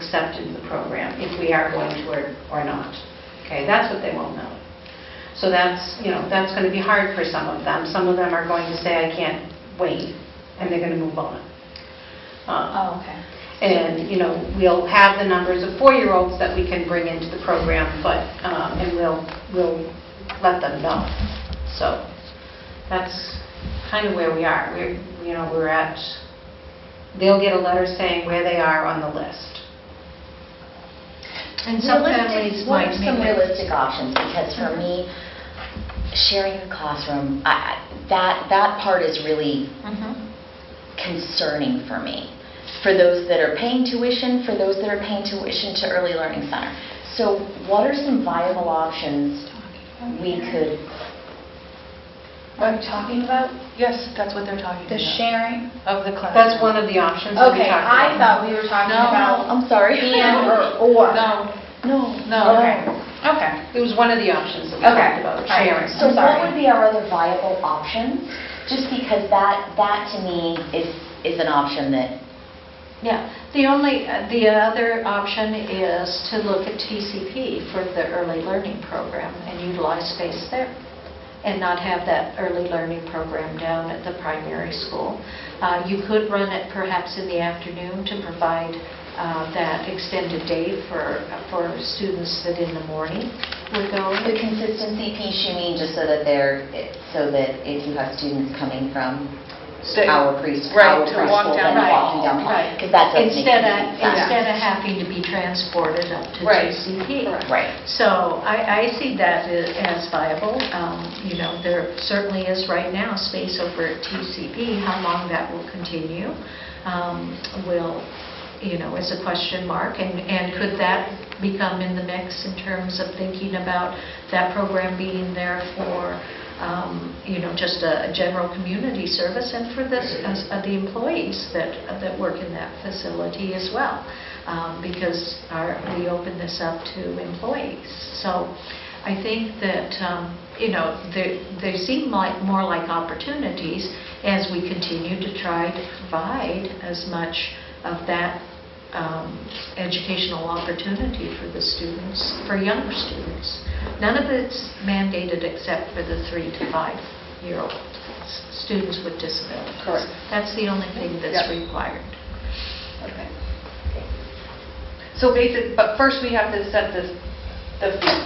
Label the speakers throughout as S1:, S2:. S1: accepted the program, if we are going to or or not. Okay, that's what they won't know. So that's, you know, that's going to be hard for some of them. Some of them are going to say, I can't wait, and they're going to move on. Um,
S2: Oh, okay.
S1: And, you know, we'll have the numbers of four-year-olds that we can bring into the program, but, um, and we'll, we'll let them know. So that's kind of where we are. We're, you know, we're at, they'll get a letter saying where they are on the list.
S3: And
S2: some
S3: some
S2: families
S3: families
S2: might
S3: What are some
S2: make it-
S3: realistic options? Because for me, sharing a classroom, I- I- that, that part is really
S2: Mm-hmm.
S3: concerning for me, for those that are paying tuition, for those that are paying tuition to Early Learning Center. So what are some viable options we could,
S2: What I'm talking about? Yes, that's what they're talking
S4: The sharing of the classroom.
S1: That's one of the options that we
S4: Okay,
S1: talked
S4: I
S1: about.
S4: thought we were talking
S2: No.
S4: about
S3: I'm sorry.
S4: and or or.
S2: No,
S3: No.
S2: no,
S4: Okay. Okay.
S1: It was one of the options that we
S4: Okay.
S1: talked about,
S4: All right.
S1: sharing.
S3: So
S4: I'm
S3: what
S4: sorry.
S3: would be our other viable options? Just because that, that to me is, is an option that,
S5: Yeah, the only, uh, the other option is to look at TCP for the early learning program and utilize space there, and not have that early learning program down at the primary school. Uh, You could run it perhaps in the afternoon to provide uh, that extended day for, for students that in the morning would go.
S3: the consistency piece you mean, just so that they're, so that if you have students coming from
S4: That-
S3: our preschool,
S4: right,
S3: our
S4: to walk
S3: preschool,
S4: down the
S3: then walking
S4: hall.
S3: down the hall.
S5: Right.
S3: Because that doesn't make
S5: Instead of,
S3: any sense.
S5: instead of having to be transported up to
S4: Right.
S5: TCP.
S4: Correct.
S3: Right.
S5: So I, I see that i- as viable. Um, You know, there certainly is right now space over at TCP. How long that will continue um, will, you know, is a question mark. And, and could that become in the mix in terms of thinking about that program being there for, um, you know, just a a general community service and for this, as- uh, the employees that, that work in that facility as well? um, because our, we open this up to employees. So I think that, um, you know, they, they seem like, more like opportunities as we continue to try to provide as much of that um, educational opportunity for the students, for younger students. None of it's mandated except for the three to five-year-old s- students with disabilities.
S4: Correct.
S5: That's the only thing that's
S4: Yeah.
S5: required.
S4: Okay. So basic, but first we have to set this, the fees.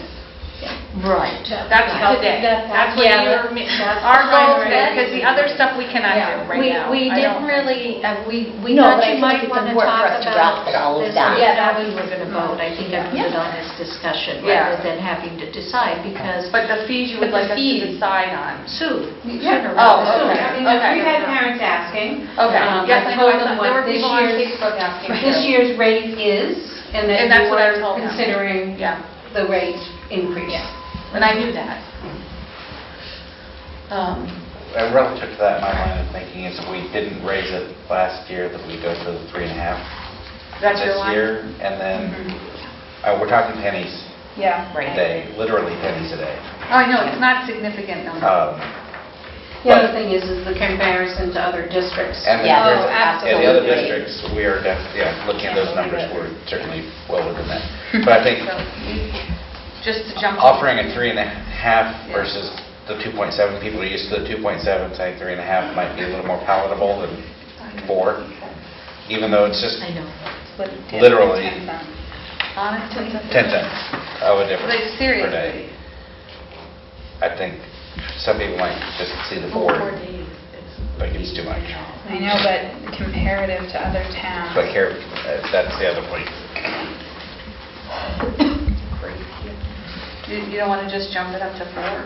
S5: Right.
S4: That's today. That's what your, our goal today, because the other stuff we cannot do right
S5: We-
S4: now.
S5: We
S4: I
S5: didn't
S4: don't-
S5: really, uh, we, we
S3: No,
S5: thought
S3: but I
S5: you
S3: think
S5: might
S3: it's
S5: want to
S3: important for us
S5: talk
S3: to wrap
S5: about
S3: it all
S5: this.
S3: down.
S5: Yeah, that we were going to vote. I think I put
S3: Yeah.
S5: it on as discussion
S4: Yeah.
S5: rather than having to decide because
S4: But the fees you would
S5: But
S4: like us
S5: the
S4: to
S5: fees-
S4: decide on.
S5: Sue, you
S1: Yeah.
S5: should have
S4: Oh,
S1: So,
S5: read the-
S4: okay.
S1: I mean, we had
S4: Okay.
S1: parents asking.
S4: Okay.
S1: Um,
S4: Yes, I know,
S1: told
S4: I
S1: them
S4: thought-
S1: what
S4: there were
S1: this
S4: people on
S1: year's-
S4: Facebook asking.
S1: This
S4: too.
S1: year's rate is, and that
S4: And that's
S1: you
S4: what I
S1: were
S4: told them.
S1: considering
S4: Yeah,
S1: the rate increase.
S4: and I knew that. Um,
S6: Uh, Relative to that, my line of thinking is if we didn't raise it last year, that we go for the three and a half
S4: That's your
S6: this
S4: line? Mm-hmm.
S6: year. And then, uh, we're talking pennies
S4: Yeah.
S6: a
S3: Right.
S6: day, literally pennies a day.
S4: Oh, I know, it's not significant number.
S6: Um,
S1: The other thing is, is the comparison to other districts.
S6: And the
S3: Yeah,
S6: others-
S4: Oh,
S6: and the other
S3: absolutely.
S6: districts, we are, def- yeah, looking at those numbers, we're certainly well within that. But I think
S4: So, Just to jump.
S6: offering a three and a half
S4: Yeah.
S6: versus the 2.7, people are used to the 2.7, saying three and a half might be a little more palatable than four, even though it's just
S5: I know.
S6: literally
S4: Honestly.
S6: 10 cents of a difference
S4: Like,
S6: per day.
S4: seriously.
S6: I think some people might just see the board, but it's too much.
S7: I know, but comparative to other towns.
S6: But here, uh, that's the other point.
S4: You you don't want to just jump it up to four?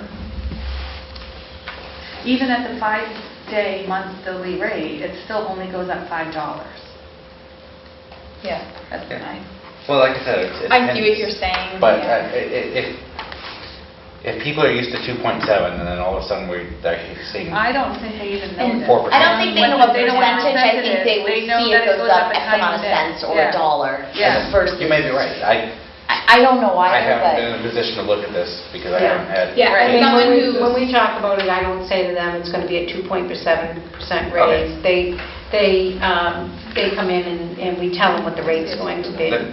S4: Even at the five-day monthly rate, it still only goes up $5.
S7: Yeah.
S4: That's nice.
S6: Well, like I said, it's... it's
S7: I see what
S6: pennies.
S7: you're saying.
S6: But
S7: yeah.
S6: uh, i- i- if, if people are used to 2.7 and then all of a sudden we're actually seeing,
S4: I don't think they even know Um,
S3: And
S4: that.
S6: Four percent.
S3: I don't think they know a percentage, I think they would see it goes up X amount of cents or a dollar
S4: Yeah.
S3: versus...
S6: you may be right. I,
S3: I I don't know
S6: I
S3: either,
S6: haven't been
S3: but...
S6: in a position to look at this because I
S1: Yeah.
S6: haven't had...
S7: Yeah,
S1: I
S7: as
S1: mean,
S7: someone
S1: when we,
S7: who-
S1: when we talk about it, I don't say to them, it's going to be a 2.7%
S6: Okay.
S1: raise. They, they, um, they come in and, and we tell them what the rate's going to be.
S6: Then-